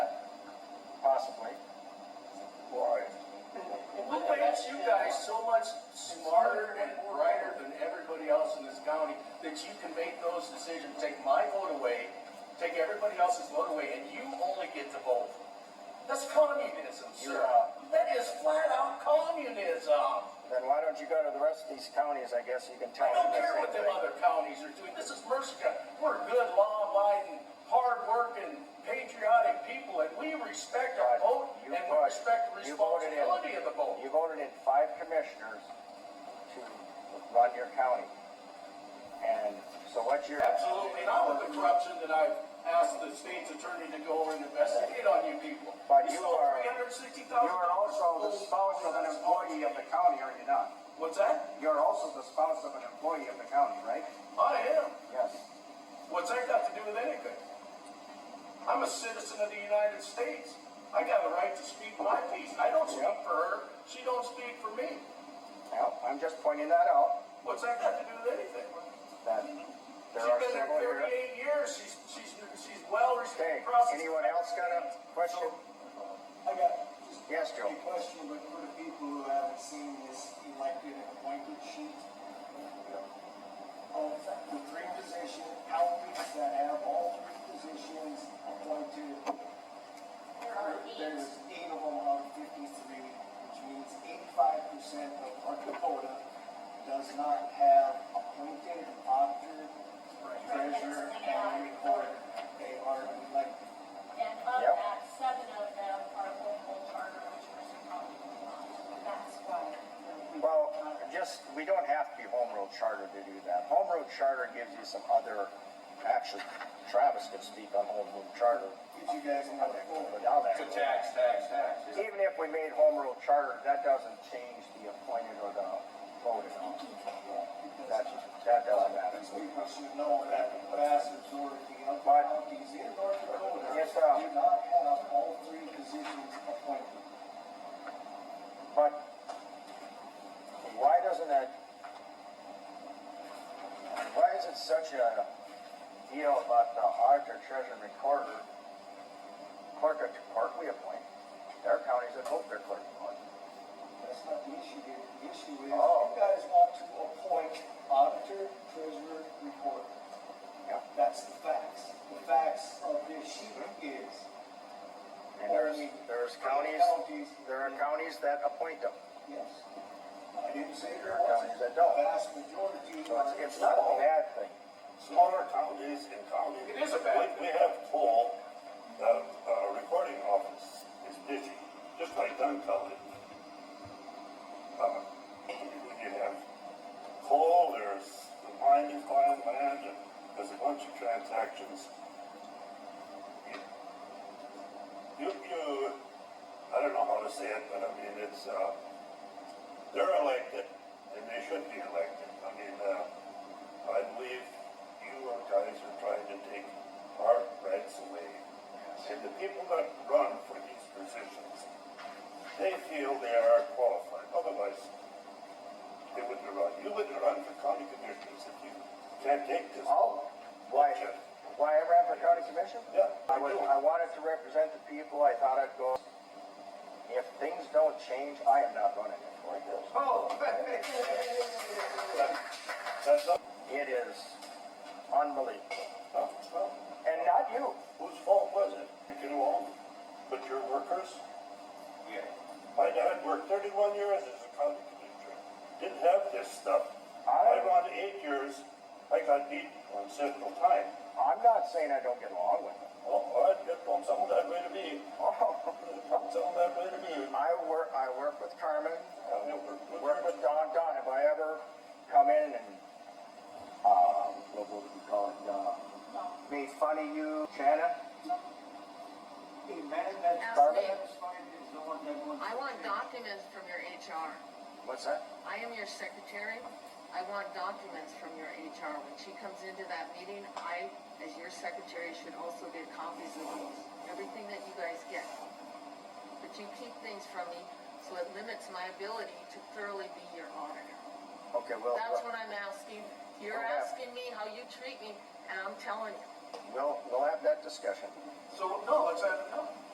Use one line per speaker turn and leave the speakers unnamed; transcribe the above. take everybody else's vote away, and you only get to vote. That's communism, sir. That is flat out communism.
Then why don't you go to the rest of these counties, I guess you can tell
I
them
don't
the
care
same
what them
thing.
other counties are doing. This is Mercer County. We're good, law-abiding, hard-working, patriotic people, and we respect our vote,
You
and we
voted-
respect the
you voted in-
responsibility of the vote.
You voted in five commissioners to run your county. And so what's your?
Absolutely not with the corruption that I've asked the state's attorney to go over and investigate on you people.
But
We
you
stole
are-
$360,000
You are also the spouse of an employee of the county, are you not?
What's that?
You're also the spouse of an employee of the county, right?
I am.
Yes.
What's that got to do with anything? I'm a citizen of the United States. I got a right to speak my piece. I don't speak
Yeah.
for her. She don't speak for me.
Well, I'm just pointing that out,
What's that got to do with anything?
that there
She's
are
been there
several here.
38 years. She's she's she's well
Okay,
respected. process.
anyone else got a question?
I got just
Yes, Joe.
a question, but for the people who haven't seen this elected and appointed sheet of the three position outreach that have all three positions appointed.
There are eight.
There's eight of them out of fifty-three, which means eighty-five percent of North Dakota does not have appointed auditor, treasurer, and recorder. They are elected.
And of
Yep.
that, seven of them are local charter, which Mercer County is not. That's why.
Well, just, we don't have to be home rule charter to do that. Home rule charter gives you some other, actually, Travis could speak on home rule charter.
Did you guys know that?
But now that-
tax, tax, tax.
Even if we made home rule charter, that doesn't change the appointed or the voted. That, that doesn't matter.
These people should know that the vast majority of
But-
counties in North Dakota
Yes, sir.
do not have all three positions appointed.
But why doesn't that, why is it such a deal about the auditor, treasurer, and recorder? Clerk, of clerk we appoint. There are counties that vote their clerk.
That's not the issue here. The issue is
Oh.
you guys want to appoint auditor, treasurer, recorder.
Yep.
That's the facts. The facts of this sheet is
Mm-hmm. And there's, there's counties,
counties.
there are counties that appoint them.
Yes. I didn't say
There
there
are
wasn't.
counties that
The
don't.
vast majority
So
are.
it's, it's not a bad thing.
smaller counties and counties.
It is a bad
We, we have full, uh, uh, recording office is busy, just like Dunn County. Uh, You have coal, there's the mining file land, and there's a bunch of transactions. You, you, I don't know how to say it, but I mean, it's, uh, they're elected, and they should be elected. I mean, uh, I believe you guys are trying to take our rights away. And the people that run for these positions, they feel they are qualified, otherwise they wouldn't run. You wouldn't run for county commissioners if you can't take this.
Oh, why, why I ran for county commission?
Yeah.
I was, I wanted to represent the people, I thought I'd go. If things don't change, I am not running it for you.
Oh,
That's not,
It is unbelievable.
well,
And not you.
whose fault was it? You can all, but your workers?
Yeah.
My dad worked 31 years as a county commissioner. Didn't have this stuff.
I-
I ran eight years. I got beat on several time.
I'm not saying I don't get along with them.
Oh, all right, get on some of that way to be. Some of that way to be.
I work, I work with Carmen,
I worked with
work with Don, Don, if I ever come in and, um, what would you call it, uh, made fun of you, Shannon?
A man that's
Carmen?
satisfied is the one that wants.
I want
to-
documents from your HR.
What's that?
I am your secretary. I want documents from your HR. When she comes into that meeting, I, as your secretary, should also get copies of those, everything that you guys get. But you keep things from me, so it limits my ability to thoroughly be your auditor.
Okay, well,
That's what I'm asking. You're
Okay.
asking me how you treat me, and I'm telling you.
we'll, we'll have that discussion.
So, no, let's have, no.